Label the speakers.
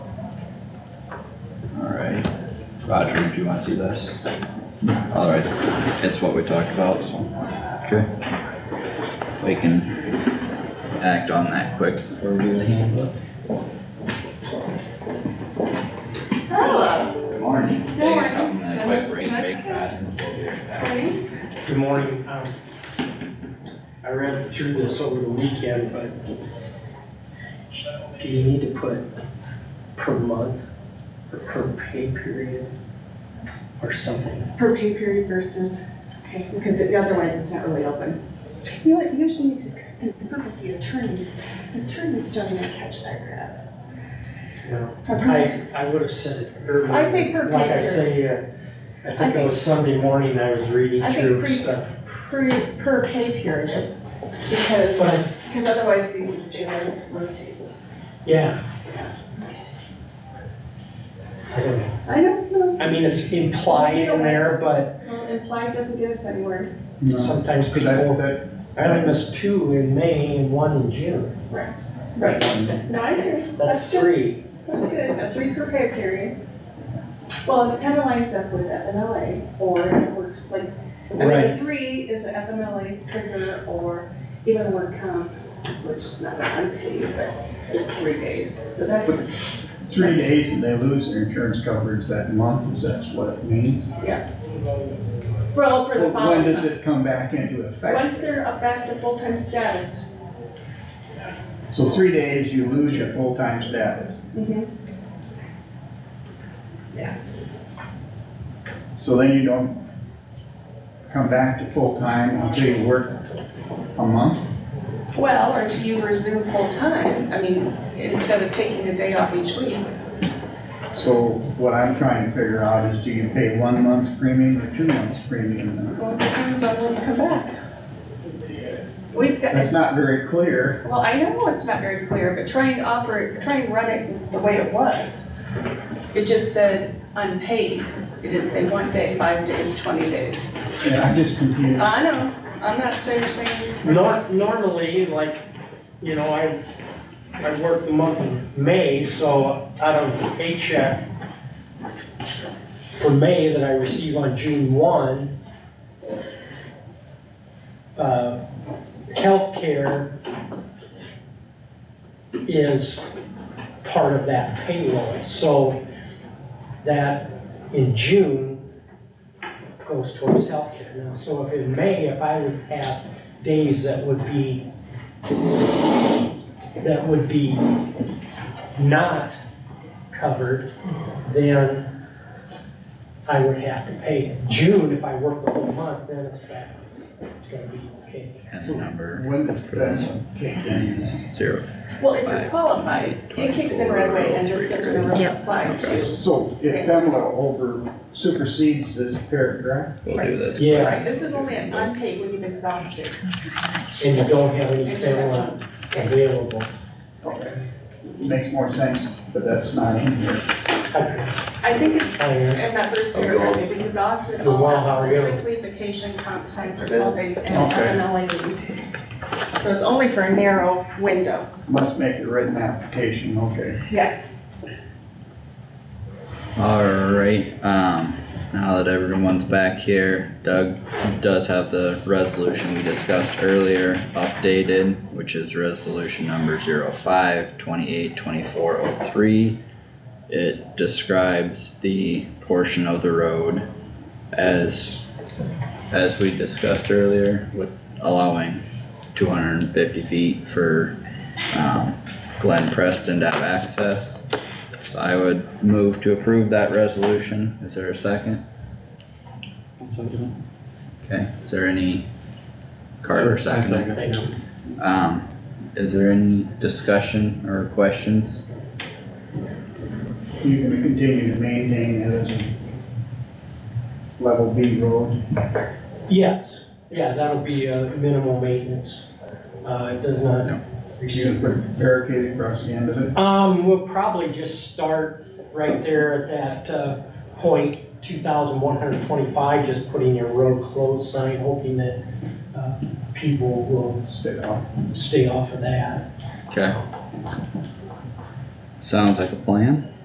Speaker 1: Roger, do you wanna see this? Alright, it's what we talked about, so
Speaker 2: Okay.
Speaker 1: we can act on that quick before we do the handbook.
Speaker 3: Hello.
Speaker 1: Good morning.
Speaker 3: Good
Speaker 1: Hey,
Speaker 3: morning.
Speaker 1: I'm gonna quick
Speaker 3: That's
Speaker 1: break,
Speaker 3: nice.
Speaker 1: break, Roger, we'll be right back.
Speaker 3: Morning.
Speaker 4: Good morning. Um, I read through this over the weekend, but do you need to put per month or per pay period or something?
Speaker 3: Per pay period versus, okay, because it- otherwise it's not really open.
Speaker 5: You know what, you usually need to confirm with the attorneys, The attorneys don't even catch that crap.
Speaker 4: No.
Speaker 5: Okay.
Speaker 4: I, I would have said it earlier.
Speaker 5: I'd say per pay
Speaker 4: Like I
Speaker 5: period.
Speaker 4: say, uh, I think it
Speaker 5: think-
Speaker 4: was Sunday morning I was reading
Speaker 5: I think
Speaker 4: through
Speaker 5: pre-
Speaker 4: stuff.
Speaker 5: Per, per pay period, because,
Speaker 4: But I
Speaker 5: because otherwise the jails rotates.
Speaker 4: Yeah. I don't know.
Speaker 5: I don't know,
Speaker 4: I mean, it's implied in there, but
Speaker 5: well, implied doesn't get us anywhere.
Speaker 4: sometimes people, I only missed two in May and one in June.
Speaker 5: Right. Right, no, I agree,
Speaker 4: That's
Speaker 5: That's good.
Speaker 4: three.
Speaker 5: that's good, a three per pay period. Well, it kinda lines up with FMLA, or it works like, I mean,
Speaker 4: Right.
Speaker 5: the three is an FMLA trigger, or even work comp, which is not unpaid, but it's three days, so that's.
Speaker 6: Three days and they lose their insurance coverage that month, is that's what it means?
Speaker 5: Well, for the
Speaker 6: When
Speaker 5: following,
Speaker 6: does it come back into effect?
Speaker 5: once they're up back to full-time status.
Speaker 6: So three days, you lose your full-time status. So then you don't come back to full-time until you work a month?
Speaker 5: Well, or do you resume full-time, I mean, instead of taking a day off each week.
Speaker 6: So what I'm trying to figure out is do you pay one month's premium or two months premium?
Speaker 5: Well, it depends on when you come back. We've got,
Speaker 6: That's
Speaker 5: it's,
Speaker 6: not very clear.
Speaker 5: well, I know it's not very clear, but try and offer, try and run it the way it was. It just said unpaid, it didn't say one day, five days, twenty days.
Speaker 6: And I'm just confused.
Speaker 5: I know, I'm not saying, saying.
Speaker 4: Nor- normally, like, you know, I, I worked the month of May, so out of the paycheck for May that I receive on June one, uh, healthcare is part of that payroll, so that in June goes towards healthcare now. So if in May, if I would have days that would be, that would be not covered, then I would have to pay it. June, if I work the whole month, then it's back, it's gonna be okay.
Speaker 1: And the number
Speaker 6: When does that kick in?
Speaker 1: zero.
Speaker 5: Well, if you're qualified, it kicks in right away and this doesn't really apply to.
Speaker 6: So if Pamela over supersedes this paragraph,
Speaker 1: We'll do this.
Speaker 4: Yeah.
Speaker 5: Right, this is only an unpaid when you've exhausted.
Speaker 4: And you don't have any FEMA available.
Speaker 6: makes more sense, but that's not in here.
Speaker 4: I-
Speaker 5: I think it's
Speaker 4: I-
Speaker 5: in that first paragraph, they've exhausted
Speaker 4: You're
Speaker 5: all
Speaker 4: well, how are you?
Speaker 5: sick leave, vacation, comp time, personal days, and
Speaker 6: Okay.
Speaker 5: FMLA leave. So it's only for a narrow window.
Speaker 6: Must make a written application, okay.
Speaker 1: Alright, um, now that everyone's back here, Doug does have the resolution we discussed earlier updated, which is resolution number zero five twenty-eight twenty-four oh three. It describes the portion of the road as, as we discussed earlier, with allowing two hundred and fifty feet for, um, Glen Preston to have access. So I would move to approve that resolution. Is there a second? Okay, is there any? Carter second.
Speaker 4: Thank you.
Speaker 1: Um, is there any discussion or questions?
Speaker 6: You're gonna continue to maintain it as a level B road.
Speaker 4: Yes, yeah, that'll be a minimal maintenance. Uh, it does not
Speaker 1: No.
Speaker 6: You're
Speaker 4: receive.
Speaker 6: gonna put barricade across the end of it.
Speaker 4: Um, we'll probably just start right there at that, uh, point, two thousand one hundred twenty-five, just putting a road closed sign, hoping that, uh, people will
Speaker 6: Stay off.
Speaker 4: stay off of that.
Speaker 1: Okay. Sounds like a plan.